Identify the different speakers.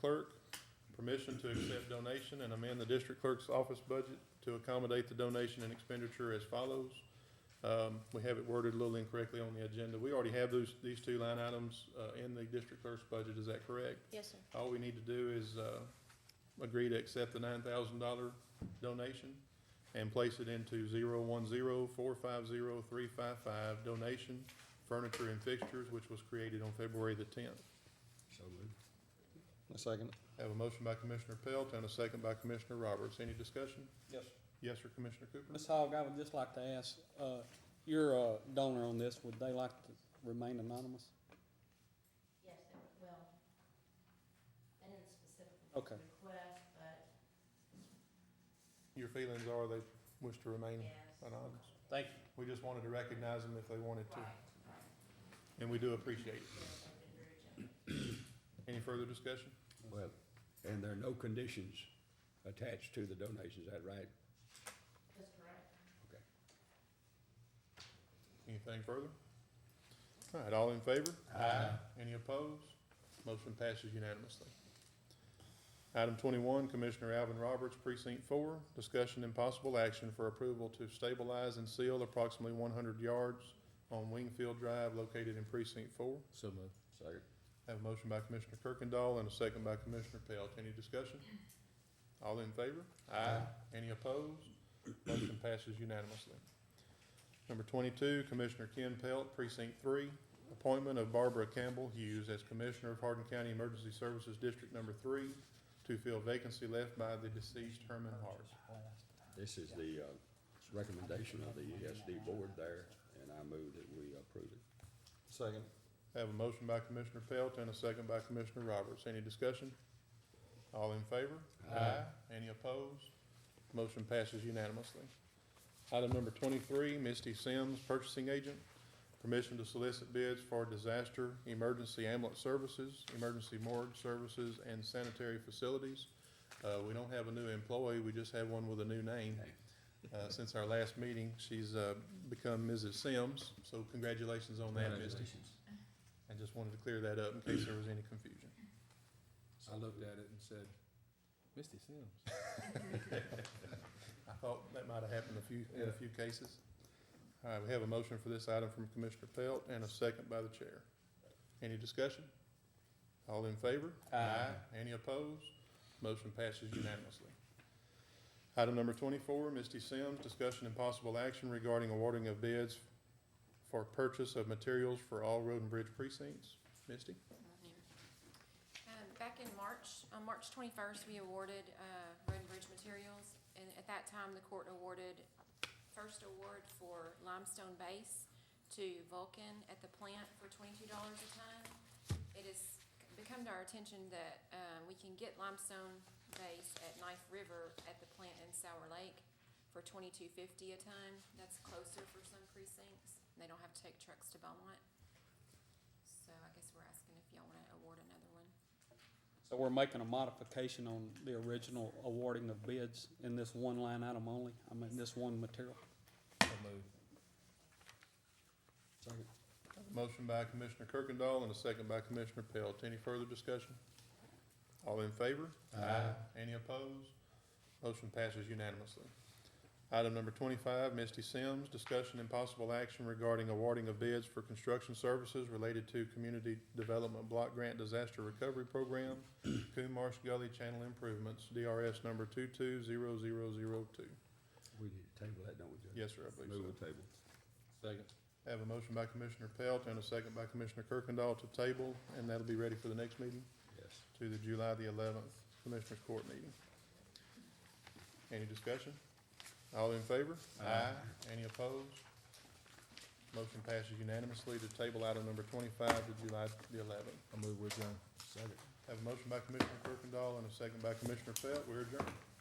Speaker 1: clerk permission to accept donation and amend the district clerk's office budget to accommodate the donation and expenditure as follows. Um, we have it worded a little incorrectly on the agenda. We already have those, these two line items, uh, in the district clerk's budget, is that correct?
Speaker 2: Yes, sir.
Speaker 1: All we need to do is, uh, agree to accept the nine thousand dollar donation and place it into zero one zero four five zero three five five donation furniture and fixtures, which was created on February the tenth.
Speaker 3: So moved.
Speaker 4: A second.
Speaker 1: Have a motion by Commissioner Pelt and a second by Commissioner Roberts. Any discussion?
Speaker 5: Yes.
Speaker 1: Yes, sir, Commissioner Cooper?
Speaker 5: Ms. Hogg, I would just like to ask, uh, your, uh, donor on this, would they like to remain anonymous?
Speaker 2: Yes, they were- well, I didn't specifically
Speaker 5: Okay.
Speaker 2: request, but
Speaker 1: Your feelings are they wish to remain
Speaker 2: yes.
Speaker 1: anonymous?
Speaker 5: Thank you.
Speaker 1: We just wanted to recognize them if they wanted to,
Speaker 2: Right, right.
Speaker 1: and we do appreciate it.
Speaker 2: Yes, they've been very generous.
Speaker 1: Any further discussion?
Speaker 3: Well, and there are no conditions attached to the donation, is that right?
Speaker 2: That's correct.
Speaker 1: Anything further? All right, all in favor? Aye. Any opposed? Motion passes unanimously. Item twenty-one, Commissioner Alvin Roberts, Precinct Four, discussion and possible action for approval to stabilize and seal approximately one hundred yards on Wingfield Drive located in Precinct Four.
Speaker 3: So moved. Second.
Speaker 1: Have a motion by Commissioner Kirkendall and a second by Commissioner Pelt. Any discussion? All in favor? Aye. Any opposed? Motion passes unanimously. Number twenty-two, Commissioner Ken Pelt, Precinct Three, appointment of Barbara Campbell Hughes as Commissioner of Hardin County Emergency Services District Number Three to fill vacancy left by the deceased Herman Hart.
Speaker 3: This is the, uh, recommendation of the ESD board there, and I move that we approve it.
Speaker 4: Second.
Speaker 1: Have a motion by Commissioner Pelt and a second by Commissioner Roberts. Any discussion? All in favor?
Speaker 3: Aye.
Speaker 1: Any opposed? Motion passes unanimously. Item number twenty-three, Misty Sims, purchasing agent. Permission to solicit bids for disaster, emergency ambulance services, emergency morgue services, and sanitary facilities. Uh, we don't have a new employee, we just have one with a new name. Uh, since our last meeting, she's, uh, become Mrs. Sims, so congratulations on that, Misty. And just wanted to clear that up in case there was any confusion.
Speaker 3: I looked at it and said, Misty Sims.
Speaker 1: I thought that might have happened a few, in a few cases. All right, we have a motion for this item from Commissioner Pelt and a second by the chair. Any discussion? All in favor?
Speaker 5: Aye.
Speaker 1: Any opposed? Motion passes unanimously. Item number twenty-four, Misty Sims, discussion and possible action regarding awarding of bids for purchase of materials for all road and bridge precincts. Misty?
Speaker 6: Um, Back in March, on March twenty-first, we awarded uh, road and bridge materials, and at that time, the court awarded first award for limestone base to Vulcan at the plant for twenty-two dollars a ton. It has become to our attention that um, we can get limestone base at Knife River at the plant in Sour Lake for twenty-two fifty a ton. That's closer for some precincts, and they don't have to take trucks to Beaumont. So I guess we're asking if y'all wanna award another one.
Speaker 5: So we're making a modification on the original awarding of bids in this one line item only, I mean, this one material.
Speaker 3: Second.
Speaker 1: Motion by Commissioner Kirkendall and a second by Commissioner Pelt. Any further discussion? All in favor? Aye. Any opposed? Motion passes unanimously. Item number twenty-five, Misty Sims, discussion and possible action regarding awarding of bids for construction services related to Community Development Block Grant Disaster Recovery Program, Coon Marsh Gully Channel Improvements, DRS number two-two-zero-zero-zero-two.
Speaker 3: We need to table that, don't we, Judge?
Speaker 1: Yes, sir, I believe so.
Speaker 3: Move the table. Second.
Speaker 1: Have a motion by Commissioner Pelt and a second by Commissioner Kirkendall to table, and that'll be ready for the next meeting,
Speaker 3: Yes.
Speaker 1: to the July the eleventh Commissioners Court meeting. Any discussion? All in favor? Aye. Any opposed? Motion passes unanimously to table item number twenty-five to July the eleventh.
Speaker 4: I move with John.
Speaker 3: Second.
Speaker 1: Have a motion by Commissioner Kirkendall and a second by Commissioner Pelt. We're adjourned. uh,